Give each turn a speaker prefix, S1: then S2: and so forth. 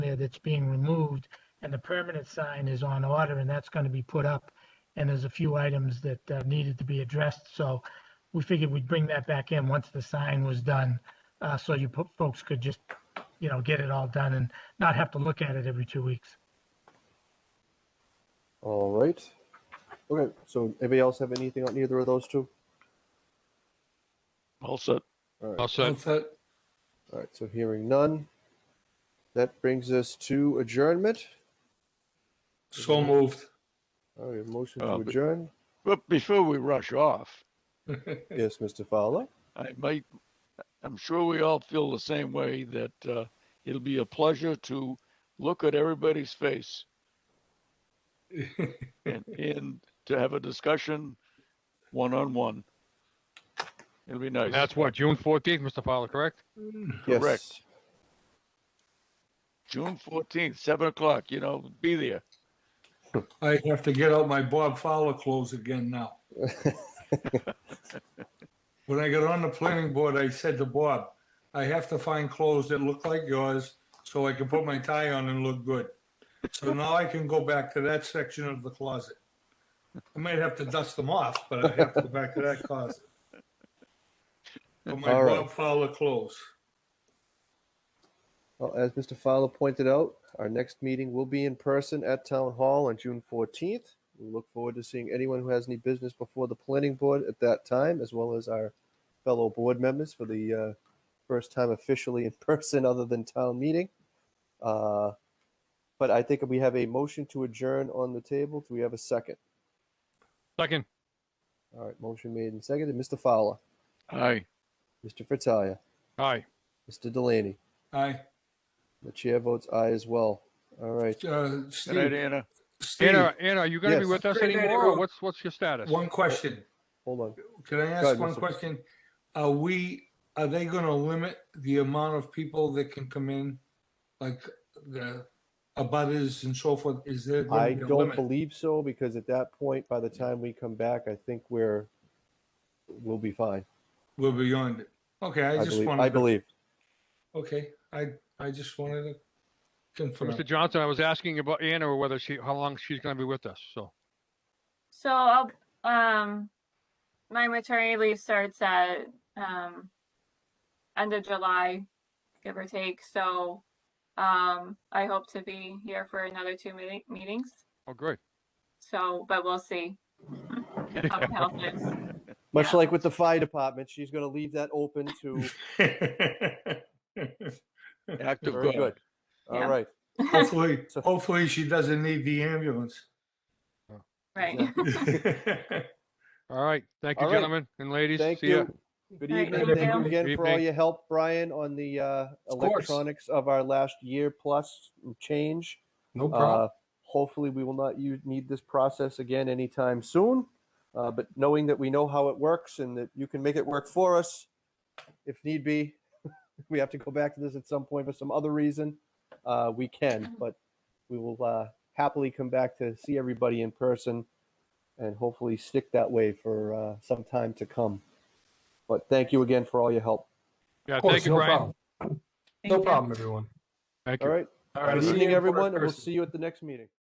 S1: that's being removed and the permanent sign is on order and that's going to be put up. And there's a few items that uh, needed to be addressed. So we figured we'd bring that back in once the sign was done. Uh, so you po- folks could just, you know, get it all done and not have to look at it every two weeks.
S2: All right. Okay, so anybody else have anything on either of those two?
S3: All set.
S2: All right,
S4: All set.
S2: all right, so hearing none. That brings us to adjournment. Mhm.
S4: So moved.
S2: All right, motion to
S3: Uh, but-
S2: adjourn.
S3: But before we rush off,
S2: Yes, Mr. Fowler.
S3: I might, I'm sure we all feel the same way that uh, it'll be a pleasure to look at everybody's face and, and to have a discussion one on one. It'll be nice.
S5: That's what, June fourteenth, Mr. Fowler, correct?
S2: Yes.
S3: Correct. June 14th, 7 o'clock. You know, be there.
S4: I have to get out my Bob Fowler clothes again now. When I got on the planning board, I said to Bob, I have to find clothes that look like yours so I can put my tie on and look good. So now I can go back to that section of the closet. I might have to dust them off, but I have to go back to that closet. But my
S2: All right.
S4: Bob Fowler clothes.
S2: Well, as Mr. Fowler pointed out, our next meeting will be in person at Town Hall on June 14th. We look forward to seeing anyone who has any business before the planning board at that time, as well as our fellow board members for the uh, first time officially in person other than town meeting. Uh, But I think we have a motion to adjourn on the table. Do we have a second?
S5: Second,
S2: All right, motion made and seconded. Mr. Fowler,
S3: Aye.
S2: Mr. Fratelli,
S5: aye.
S2: Mr. Delaney.
S4: Aye.
S2: The chair votes aye as well. All right.
S4: Uh,
S3: Good night,
S4: Steve,
S3: Anna.
S4: Steve,
S5: Anna, Anna, are you gonna be
S2: Yes.
S5: with us
S4: Great night,
S5: anymore, or
S4: everyone.
S5: what's, what's your status?
S4: one question.
S2: Hold on.
S4: Can I
S2: Go ahead,
S4: ask one
S2: Mr.
S4: question? Are we, are they going to limit the amount of people that can come in? Like the abutters and so forth? Is there
S2: I
S4: going to be a
S2: don't
S4: limit?
S2: believe so because at that point, by the time we come back, I think we're we'll be fine.
S4: We're beyond it. Okay,
S2: I,
S4: I just
S2: believe.
S4: wanted.
S2: I
S4: to-
S2: believe.
S4: Okay, I, I just wanted to confirm.
S5: Mr. Johnson, I was asking about Anna, or whether she, how long she's gonna be with us, so.
S6: So, I'll- um, my maternity leave starts at, um, end of July, give or take. So, um, I hope to be here for another two meeti- meetings.
S5: Oh, great.
S6: So, but we'll see how the health is.
S2: Much
S6: Yeah.
S2: like with the fire department, she's going to leave that open to.
S3: Act of
S2: Very
S3: God.
S2: good. All right.
S6: Yeah.
S4: Hopefully,
S2: So-
S4: hopefully she doesn't need the ambulance.
S6: Right.
S5: All right, thank you,
S2: All right.
S5: gentlemen and ladies.
S2: Thank
S5: See
S2: you.
S5: ya.
S2: Good
S6: All right,
S2: evening. Thank you
S4: thank you.
S2: again
S5: Good
S2: for all
S5: evening.
S2: your help, Brian, on the uh,
S4: Of course.
S2: electronics of our last year plus change.
S4: No
S2: Uh, hopefully, we will not u- need this process again anytime soon. Uh, but knowing that we know how it works and that you can make it work for us if need be, if we have to go back to this at some point for some other reason, uh, we can. But we will uh, happily come back to see everybody in person and hopefully stick that way for uh, some time to come. But thank you again for all your help.
S5: Yeah, thank you, Brian.
S6: No problem.
S5: Thank
S2: All
S5: you.
S2: right.
S7: All
S2: Good
S7: see you
S2: evening,
S7: in
S2: everyone, and we'll
S7: person.
S2: see you at the next meeting.